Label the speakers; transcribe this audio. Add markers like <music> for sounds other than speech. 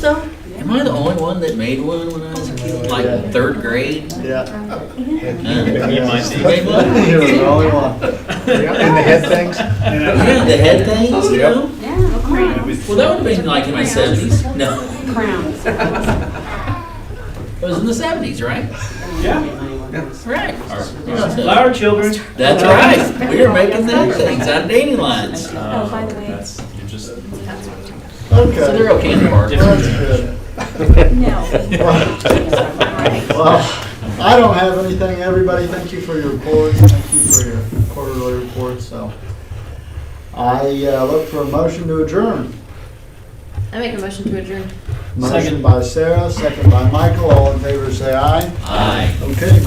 Speaker 1: though? Am I the only one that made one when I was a kid,
Speaker 2: Yeah.
Speaker 1: like third grade?
Speaker 2: Yeah.
Speaker 1: You
Speaker 3: might be.
Speaker 1: Made one?
Speaker 2: You're the only one. And the head things?
Speaker 1: <laughs> Yeah, the head things, you
Speaker 2: Yep.
Speaker 1: know?
Speaker 4: Yeah, crowns.
Speaker 1: Well, that would've been like in my seventies, no,
Speaker 4: Crowns.
Speaker 1: it was in the seventies, right?
Speaker 3: Yeah.
Speaker 1: Right.
Speaker 3: Flower children.
Speaker 1: That's right, we were making that things out of dating lines.
Speaker 3: Oh, by the way. That's, you're just.
Speaker 1: So they're
Speaker 2: Okay.
Speaker 1: okay in the park.
Speaker 2: That's good. Well, I don't have anything. Everybody, thank you for your reports. Thank you for your quarterly reports, so. I uh, look for a motion to adjourn.
Speaker 5: I make a motion to adjourn.
Speaker 2: Motion by Sarah, second by Michael. All in favor, say aye.
Speaker 1: Aye.
Speaker 2: Okay, motion